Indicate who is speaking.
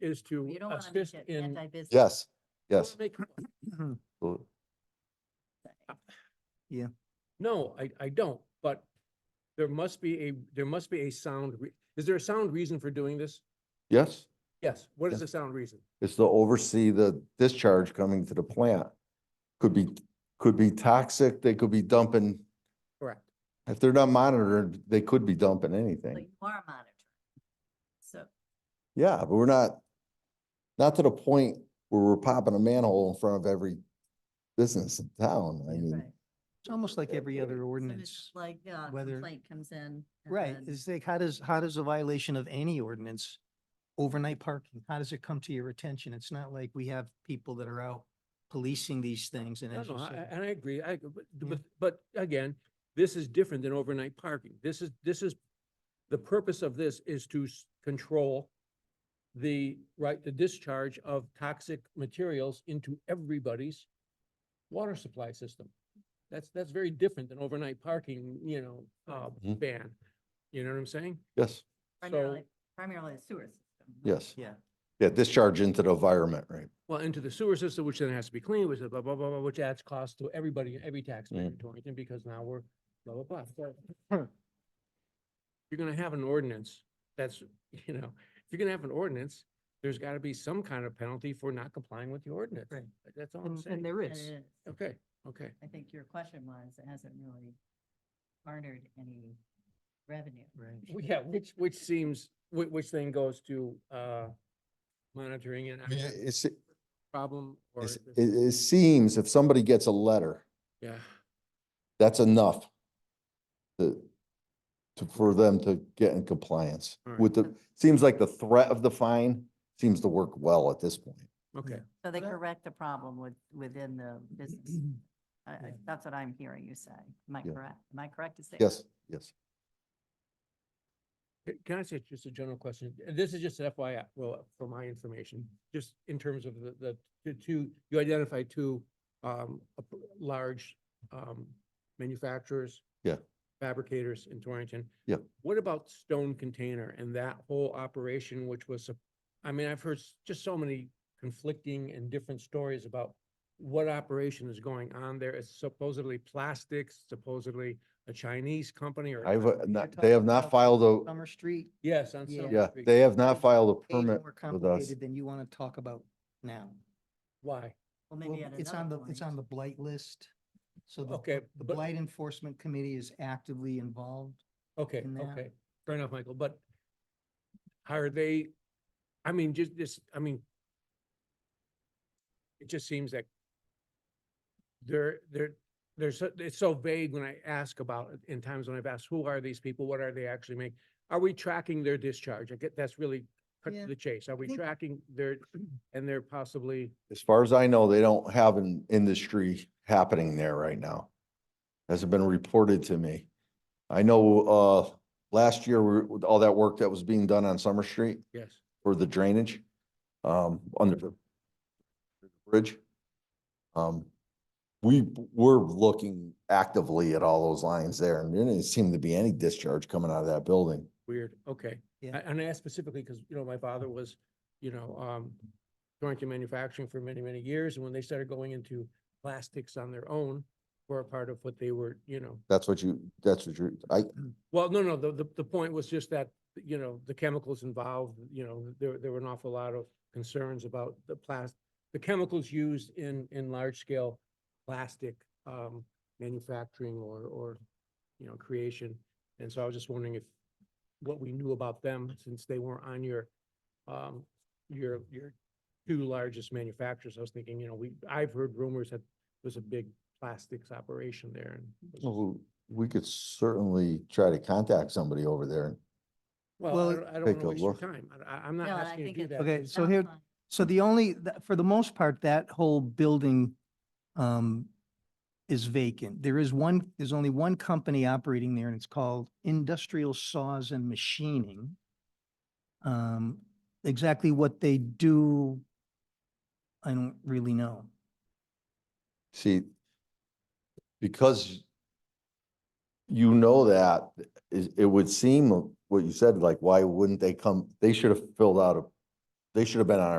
Speaker 1: is to
Speaker 2: You don't want to
Speaker 1: assist
Speaker 2: make it
Speaker 1: in.
Speaker 2: anti-business.
Speaker 3: Yes, yes.
Speaker 1: Make-
Speaker 3: Well,
Speaker 1: No, I, I don't, but there must be a, there must be a sound, re- is there a sound reason for doing this?
Speaker 3: Yes,
Speaker 1: Yes, what is
Speaker 3: Yes.
Speaker 1: the sound reason?
Speaker 3: it's to oversee the discharge coming to the plant. Could be, could be toxic, they could be dumping,
Speaker 1: Correct.
Speaker 3: if they're not monitored, they could be dumping
Speaker 2: But
Speaker 3: anything.
Speaker 2: you are monitoring. So,
Speaker 3: Yeah, but we're not, not to the point where we're popping a manhole in front of every business in town. I
Speaker 2: right.
Speaker 3: mean,
Speaker 4: It's almost like every other
Speaker 2: So
Speaker 4: ordinance,
Speaker 2: it's Like, yeah,
Speaker 4: whether-
Speaker 2: complaint comes in. and
Speaker 4: right?
Speaker 2: then-
Speaker 4: It's like, how does, how does a violation of any ordinance, overnight parking, how does it come to your attention? It's not like we have people that are out policing these things and
Speaker 1: No,
Speaker 4: as
Speaker 1: no,
Speaker 4: you
Speaker 1: I- I-
Speaker 4: said,
Speaker 1: and I agree, I, but,
Speaker 4: Yeah.
Speaker 1: but, but again, this is different than overnight parking. This is, this is, the purpose of this is to s- control the, right, the discharge of toxic materials into everybody's water supply system. That's, that's very different than overnight parking, you know, uh,
Speaker 3: Mhm.
Speaker 1: ban. You know what I'm saying?
Speaker 3: Yes,
Speaker 2: Primarily, primarily a sewer system. not-
Speaker 3: yes.
Speaker 4: yeah.
Speaker 3: Yeah, discharge into the environment, right?
Speaker 1: Well, into the sewer system, which then has to be cleaned, which is blah, blah, blah, blah, which adds cost to everybody, every taxpayer in Torrington, because now we're blah, blah, blah. So, You're gonna have an ordinance that's, you know, if you're gonna have an ordinance, there's gotta be some kind of penalty for not complying with the ordinance.
Speaker 4: Right.
Speaker 1: That's all I'm
Speaker 4: And, and
Speaker 1: saying.
Speaker 4: there
Speaker 2: And
Speaker 4: is.
Speaker 2: it is.
Speaker 1: Okay, okay.
Speaker 2: I think your question was, it hasn't really garnered any revenue.
Speaker 4: Right.
Speaker 1: Well, Yeah, which, which seems, which, which thing goes to, uh, monitoring and
Speaker 3: I mean, it's, it's-
Speaker 1: problem or?
Speaker 3: it,
Speaker 1: this-
Speaker 3: it seems if somebody gets a letter,
Speaker 1: Yeah,
Speaker 3: that's enough to, to, for them to get in compliance
Speaker 1: All right.
Speaker 3: with the, seems like the threat of the fine seems to work well at this point.
Speaker 1: okay.
Speaker 2: So they
Speaker 4: But I-
Speaker 2: correct the problem with, within the business. I- I- That's what I'm hearing you say. Am I
Speaker 3: Yeah.
Speaker 2: correct? Am I correct to say? that?
Speaker 3: Yes, yes.
Speaker 1: Can- Can I say just a general question? Uh, This is just FYI, well, for my information, just in terms of the, the, the two, you identify two, um, ap- large, um, manufacturers.
Speaker 3: Yeah.
Speaker 1: Fabricators in Torrington.
Speaker 3: Yeah.
Speaker 1: What about Stone Container and that whole operation, which was, sup- I mean, I've heard s- just so many conflicting and different stories about what operation is going on there. It's supposedly plastics, supposedly a Chinese company or. a
Speaker 3: I've, uh,
Speaker 1: Chinese-
Speaker 3: not- they have not filed a,
Speaker 4: Summer Street,
Speaker 1: Yes, on
Speaker 4: Yeah.
Speaker 1: Summer
Speaker 3: yeah,
Speaker 1: Street.
Speaker 3: they have not filed a
Speaker 4: way
Speaker 3: permit
Speaker 4: more
Speaker 3: with us.
Speaker 4: complicated than you want to talk about now.
Speaker 1: Why?
Speaker 2: Well,
Speaker 4: Well,
Speaker 2: maybe at
Speaker 4: It's on
Speaker 2: another
Speaker 4: the, it's
Speaker 2: point.
Speaker 4: on the blight list. So the,
Speaker 1: Okay,
Speaker 4: the
Speaker 1: but-
Speaker 4: blight enforcement committee is actively involved.
Speaker 1: Okay,
Speaker 4: in that.
Speaker 1: okay, fair enough, Michael, but are they, I mean, just this, I mean, it just seems like they're, they're, they're so, it's so vague when I ask about, it, in times when I've asked, who are these people? What are they actually making? Are we tracking their discharge? I get, that's really cut to
Speaker 4: Yeah,
Speaker 1: the chase. Are we
Speaker 4: think-
Speaker 1: tracking their, and they're possibly,
Speaker 3: As far as I know, they don't have an industry happening there right now. Hasn't been reported to me. I know, uh, last year, we- with all that work that was being done on Summer Street,
Speaker 1: yes,
Speaker 3: for the drainage, um, under the bridge. Um, we were looking actively at all those lines there and there didn't seem to be any discharge coming out of that building.
Speaker 1: weird, okay.
Speaker 4: Yeah.
Speaker 1: A- And I asked specifically because, you know, my father was, you know, um, Torrington Manufacturing for many, many years, and when they started going into plastics on their own, were a part of what they were, you know,
Speaker 3: That's what you, that's what you're, I,
Speaker 1: well, no, no, the, the, the point was just that, you know, the chemicals involved, you know, there, there were an awful lot of concerns about the plas- the chemicals used in, in large scale plastic, um, manufacturing or, or, you know, creation. And so I was just wondering if, what we knew about them, since they weren't on your, um, your, your two largest manufacturers. I was thinking, you know, we, I've heard rumors that there's a big plastics operation there and. was just-
Speaker 3: well, we could certainly try to contact somebody over there.
Speaker 1: Well,
Speaker 4: Well,
Speaker 1: I don't- I don't want
Speaker 3: Take
Speaker 1: to
Speaker 3: a
Speaker 1: waste your
Speaker 3: look.
Speaker 1: time. I- I, I'm not
Speaker 2: No, and I
Speaker 1: asking you
Speaker 2: think
Speaker 1: to do
Speaker 2: it's-
Speaker 1: that.
Speaker 4: Okay,
Speaker 1: It's-
Speaker 4: so here,
Speaker 2: Sounds
Speaker 4: so the only, th- for the most part, that whole building um, is vacant. There is one, there's only one company operating there and it's called Industrial Saws and Machining. Um, Exactly what they do, I don't really know.
Speaker 3: See, because you know that, it, it would seem, what you said, like, why wouldn't they come, they should have filled out a They should have been on our